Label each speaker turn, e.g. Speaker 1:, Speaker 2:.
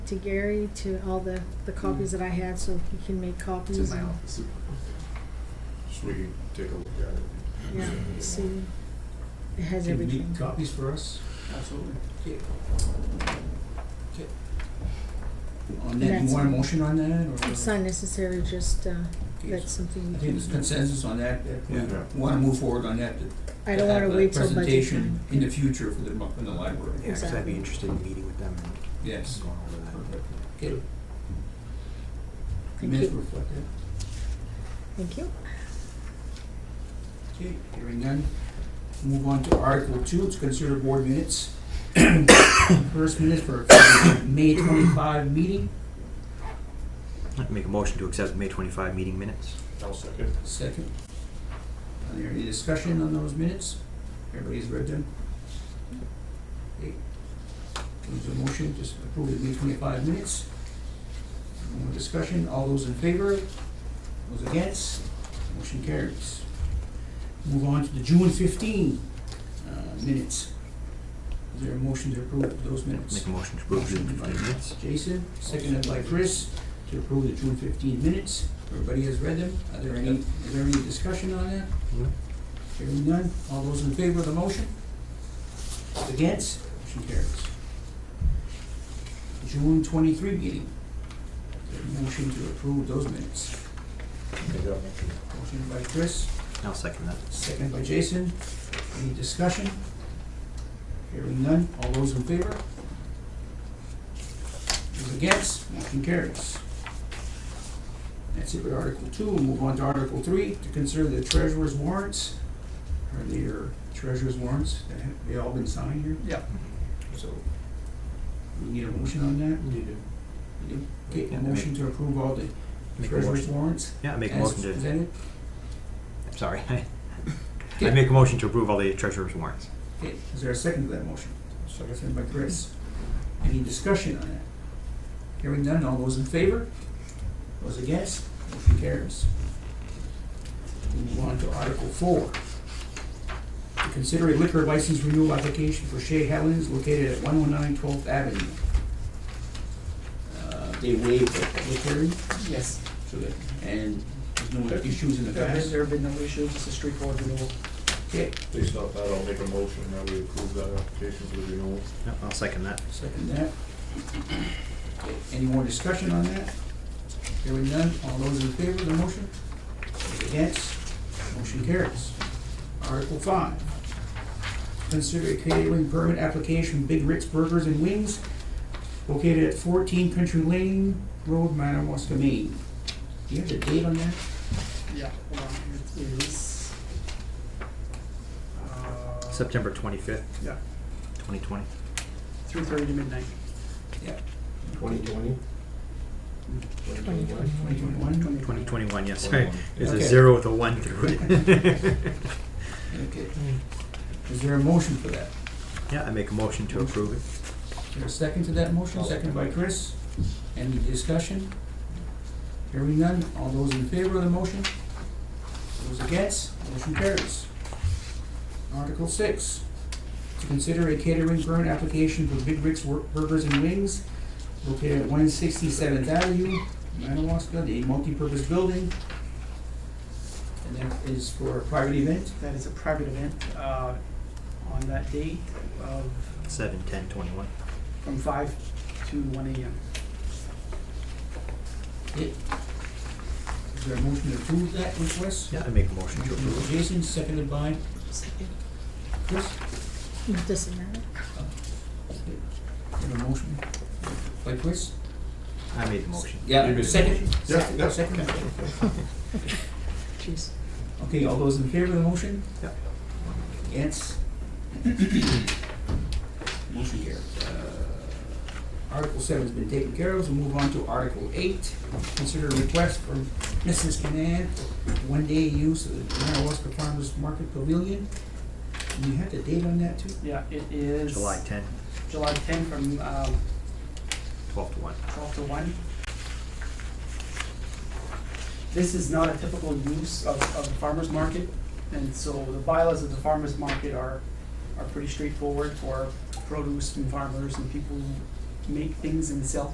Speaker 1: to Gary to all the, the copies that I had, so he can make copies.
Speaker 2: It's in Mm. my
Speaker 1: and-
Speaker 2: office. So we can take a look at it.
Speaker 1: Yeah, see, it has
Speaker 3: Can you
Speaker 1: everything.
Speaker 3: make copies for us?
Speaker 4: Absolutely.
Speaker 3: On that,
Speaker 1: That's-
Speaker 3: you want a motion on that, or?
Speaker 1: It's not necessary, just, uh,
Speaker 3: Okay,
Speaker 1: that's something
Speaker 3: I
Speaker 1: you
Speaker 3: think
Speaker 1: can,
Speaker 3: there's consensus on that, that we
Speaker 2: Yeah.
Speaker 3: wanna move forward on that, to
Speaker 1: I don't wanna
Speaker 3: have a
Speaker 1: wait till budget
Speaker 3: Presentation
Speaker 1: time.
Speaker 3: in the future for the, mo- for the library,
Speaker 5: Yeah, 'cause I'd
Speaker 1: Exactly.
Speaker 5: be interested in meeting with them and
Speaker 3: yes,
Speaker 5: going over that.
Speaker 3: okay.
Speaker 1: Thank
Speaker 3: Minutes
Speaker 1: you.
Speaker 3: reflect that,
Speaker 1: Thank you.
Speaker 3: okay, hearing none. Move on to Article Two, it's consider board minutes. First minutes for May twenty-five meeting,
Speaker 5: I'd Make a motion to accept May twenty-five meeting minutes.
Speaker 2: I'll second.
Speaker 3: second. Are there any discussion on those minutes? Everybody's read them? Okay. There's a motion, just approve the May twenty-five minutes. No more discussion, all those in favor? Those against? Motion carries. Move on to the June fifteen, uh, minutes. Is there a motion to approve those minutes?
Speaker 5: Make a motion to approve June
Speaker 3: Motion by
Speaker 5: fifteen minutes.
Speaker 3: Jason, seconded by Chris, to approve the June fifteen minutes. Everybody has read them. Are there any, is there any discussion on that?
Speaker 5: No.
Speaker 3: Hearing none. All those in favor of the motion? Against? Motion carries. June twenty-three meeting. Is there a Motion to approve those minutes. Motion by Chris,
Speaker 5: I'll second that.
Speaker 3: seconded by Jason. Any discussion? Hearing none. All those in favor? Those against? Motion carries. That's it with Article Two. We'll move on to Article Three, to consider the treasurer's warrants. Are there treasurer's warrants that have, they all been signed here?
Speaker 4: Yep.
Speaker 3: So, we need a motion on that?
Speaker 2: You
Speaker 3: We do? Okay,
Speaker 5: Yeah,
Speaker 3: a
Speaker 5: I make-
Speaker 3: motion to approve all the
Speaker 5: Make a
Speaker 3: treasurer's
Speaker 5: motion.
Speaker 3: warrants?
Speaker 5: Yeah, I make a
Speaker 3: as
Speaker 5: motion to,
Speaker 3: presented?
Speaker 5: I'm sorry. I
Speaker 3: Yeah.
Speaker 5: make a motion to approve all the treasurer's warrants.
Speaker 3: Okay, is there a second to that motion? Second by Chris. Any discussion on that? Hearing none, all those in favor? Those against? Motion carries. We Move on to Article Four. To consider a liquor license renewal application for Shea Helens located at 119 12th Avenue. Uh, They waived the public hearing,
Speaker 4: Yes.
Speaker 3: so that, and there's no issues in the
Speaker 4: There have
Speaker 3: past.
Speaker 4: there have been no issues, it's a straightforward renewal.
Speaker 3: Okay,
Speaker 2: Based off that, I'll make a motion that we approve that application for the renewal.
Speaker 5: Yep, I'll second that.
Speaker 3: Second that. Any more discussion on that? Hearing none, all those in favor of the motion? Those Against? Motion carries. Article five. Consider a catering permit application, Big Rick's Burgers and Wings, located at fourteen Country Lane Road, Madawaska, Maine. Do you have the date on that?
Speaker 4: Yeah, hold on, Um, it is. uh,
Speaker 5: September twenty-fifth,
Speaker 3: Yeah.
Speaker 5: twenty twenty.
Speaker 4: Three thirty to midnight.
Speaker 3: Yeah.
Speaker 2: Twenty twenty?
Speaker 1: Twenty twenty.
Speaker 3: Twenty twenty-one?
Speaker 5: Twenty twenty-one, yes, sorry. There's a
Speaker 3: Okay.
Speaker 5: zero with a one through it.
Speaker 3: Okay. Is there a motion for that?
Speaker 5: Yeah, I make a motion to approve it.
Speaker 3: Is there a second to that motion? Second by Chris. Any discussion? Hearing none, all those in favor of the motion? Those against, motion carries. Article six, to consider a catering permit application for Big Rick's Wor- Burgers and Wings located at one sixty-seventh Avenue, Madawaska, the multipurpose building. And that is for a private event.
Speaker 4: That is a private event, uh, on that date of,
Speaker 5: Seven, ten, twenty-one.
Speaker 4: from five to one AM.
Speaker 3: Is there a motion to approve that request?
Speaker 5: Yeah, I make a motion to
Speaker 3: Motion
Speaker 5: approve
Speaker 3: by Jason, seconded by Chris.
Speaker 1: It doesn't matter.
Speaker 3: Have a motion by Chris?
Speaker 5: it. I made the motion.
Speaker 2: You made the
Speaker 3: Second.
Speaker 2: motion. Yeah,
Speaker 3: Second.
Speaker 2: yeah.
Speaker 3: Second.
Speaker 1: Jeez.
Speaker 3: Okay, all those in favor of the motion?
Speaker 5: Yeah.
Speaker 3: Yes. Motion here. Article seven's been taken care of, so move on to Article eight. Consider a request from Mrs. Canad for one-day use of the Madawaska Farmers Market Pavilion. And you have the date on that too?
Speaker 4: Yeah, it is.
Speaker 5: July 10,
Speaker 4: July ten from, um,
Speaker 5: 12 to one.
Speaker 4: twelve to one. This is not a typical use of, of the farmer's market, and so the bylaws of the farmer's market are, are pretty straightforward for produce and farmers and people who make things and sell